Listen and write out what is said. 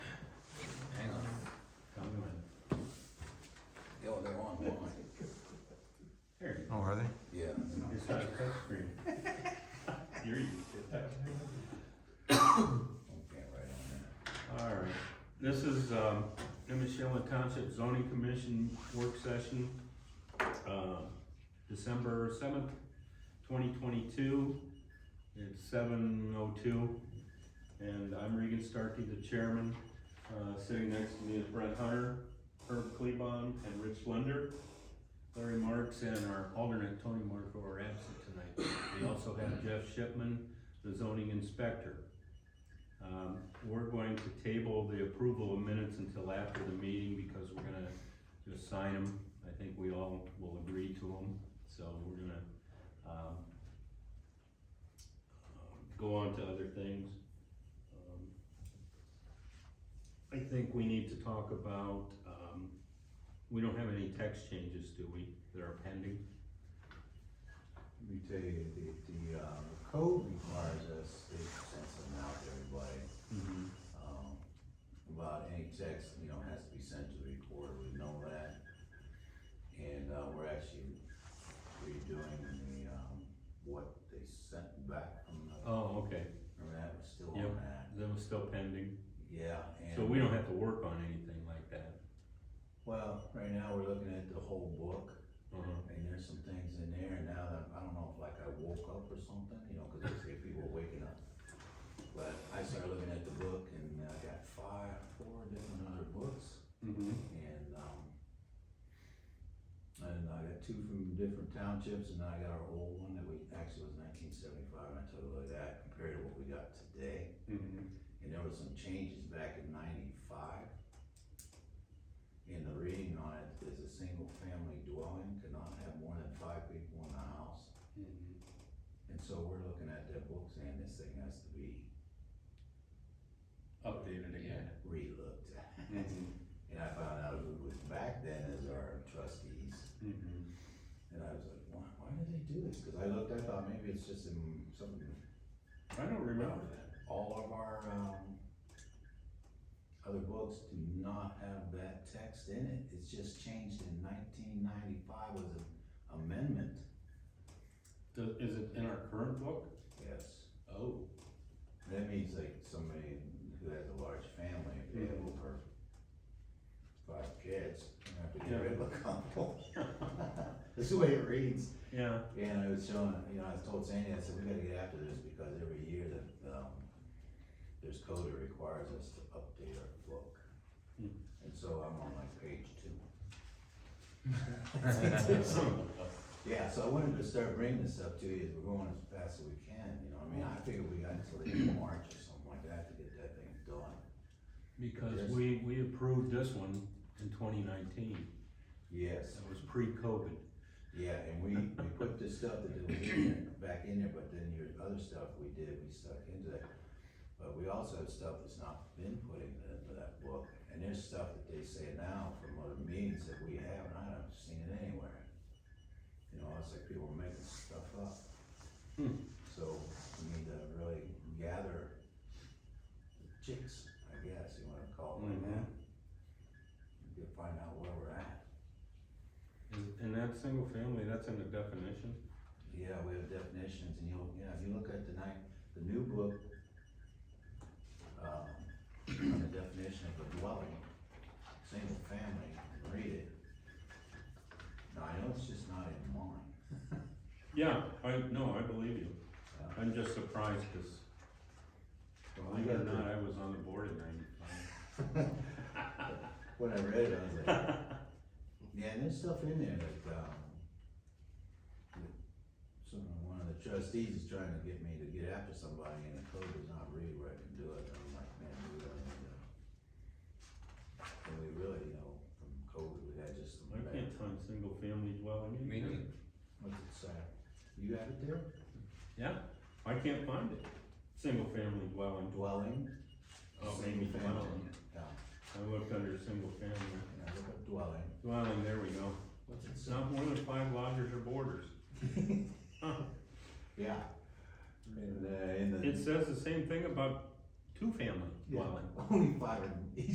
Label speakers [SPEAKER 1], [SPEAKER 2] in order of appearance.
[SPEAKER 1] This is, um, Emissiola Township Zoning Commission Work Session, uh, December seventh, twenty twenty-two. It's seven oh two, and I'm Regan Starkey, the chairman. Uh, sitting next to me is Brett Hunter, Herb Klebon, and Rich Lunder. Larry Marks and our alternate Tony Marco are absent tonight. We also have Jeff Shipman, the zoning inspector. Um, we're going to table the approval of minutes until after the meeting because we're gonna just sign them. I think we all will agree to them, so we're gonna, um, go on to other things. Um, I think we need to talk about, um, we don't have any text changes, do we, that are pending?
[SPEAKER 2] Let me tell you, the, the, uh, the code requires us to send something out to everybody, um, about any text, you know, has to be sent to the recorder, we know that. And, uh, we're actually redoing the, um, what they sent back from the,
[SPEAKER 1] Oh, okay,
[SPEAKER 2] from that, we're still
[SPEAKER 1] Yep.
[SPEAKER 2] on that.
[SPEAKER 1] that was still pending,
[SPEAKER 2] Yeah, and.
[SPEAKER 1] so we don't have to work on anything like that.
[SPEAKER 2] Well, right now, we're looking at the whole book.
[SPEAKER 1] Uh-huh.
[SPEAKER 2] And there's some things in there, and now that, I don't know if like I woke up or something, you know, cause they say people waking up. But I started looking at the book and I got five, four different other books and, um, and I got two from different townships and I got our old one that we, actually was nineteen seventy-five, and I took a look at that compared to what we got today.
[SPEAKER 1] Mhm.
[SPEAKER 2] And there were some changes back in ninety-five. And the reading on it is a single family dwelling cannot have more than five people in the house.
[SPEAKER 1] Mm-hmm.
[SPEAKER 2] And so we're looking at that book saying this thing has to be
[SPEAKER 1] Updated again.
[SPEAKER 2] relooked at.
[SPEAKER 1] Mhm.
[SPEAKER 2] And I found out who was back then as our trustees.
[SPEAKER 1] Mhm.
[SPEAKER 2] And I was like, why, why did they do this? Cause I looked, I thought maybe it's just in something
[SPEAKER 1] I don't remember that.
[SPEAKER 2] all of our, um, other books do not have that text in it, it's just changed in nineteen ninety-five was an amendment.
[SPEAKER 1] Does, is it in our current book?
[SPEAKER 2] Yes.
[SPEAKER 1] Oh.
[SPEAKER 2] That means like somebody who has a large family, if they have over five kids, they have to
[SPEAKER 1] Yeah.
[SPEAKER 2] get rid of a couple. That's the way it reads.
[SPEAKER 1] Yeah,
[SPEAKER 2] And I was showing, you know, I was told Sandy, I said, we gotta get after this because every year that, um, there's code that requires us to update our book.
[SPEAKER 1] Hmm.
[SPEAKER 2] And so I'm on like page two. Yeah, so I wanted to start bringing this up to you, as we're going as fast as we can, you know, I mean, I figure we got until the end of March or something like that to get that thing done.
[SPEAKER 1] because we, we approved this one in twenty nineteen,
[SPEAKER 2] Yes,
[SPEAKER 1] that was pre-COVID.
[SPEAKER 2] yeah, and we, we put this stuff that was in there, back in there, but then your other stuff we did, we stuck into that. But we also have stuff that's not been put into that- into that book, and there's stuff that they say now from other meetings that we have, and I haven't seen it anywhere. You know, it's like people are making stuff up.
[SPEAKER 1] Hmm.
[SPEAKER 2] So we need to really gather the chicks, I guess, you wanna call them like that. To find out where we're at.
[SPEAKER 1] And- And that single family, that's in the definition?
[SPEAKER 2] Yeah, we have definitions and you'll, yeah, if you look at the night, the new book, um, the definition of a dwelling, single family, read it. Now, I know it's just not in mine.
[SPEAKER 1] Yeah, I, no, I believe you.
[SPEAKER 2] Uh,
[SPEAKER 1] I'm just surprised, cause
[SPEAKER 2] well, I
[SPEAKER 1] believe it or
[SPEAKER 2] got
[SPEAKER 1] not,
[SPEAKER 2] the-
[SPEAKER 1] I was on the board in ninety-five.
[SPEAKER 2] When I read it, I was like, Yeah, and there's stuff in there that, um, that some, one of the trustees is trying to get me to get after somebody and the code does not read where I can do it, and I'm like, man, we really need to. And we really, you know, from COVID, we had just some
[SPEAKER 1] I
[SPEAKER 2] bad,
[SPEAKER 1] can't find single family dwelling in
[SPEAKER 3] Me
[SPEAKER 1] here.
[SPEAKER 3] neither.
[SPEAKER 2] what's it say? You have it there?
[SPEAKER 1] Yeah, I can't find it. Single family dwelling.
[SPEAKER 2] Dwelling?
[SPEAKER 1] Oh,
[SPEAKER 2] Single
[SPEAKER 1] maybe
[SPEAKER 2] family.
[SPEAKER 1] dwelling.
[SPEAKER 2] Yeah,
[SPEAKER 1] I looked under single family.
[SPEAKER 2] and I look up dwelling.
[SPEAKER 1] Dwelling, there we go.
[SPEAKER 2] What's it
[SPEAKER 1] It's
[SPEAKER 2] say?
[SPEAKER 1] not more than five lodgers or boarders. Huh.
[SPEAKER 2] Yeah. And, uh, in the.
[SPEAKER 1] It says the same thing about two family
[SPEAKER 2] Yeah,
[SPEAKER 1] dwelling.
[SPEAKER 2] Only five, in-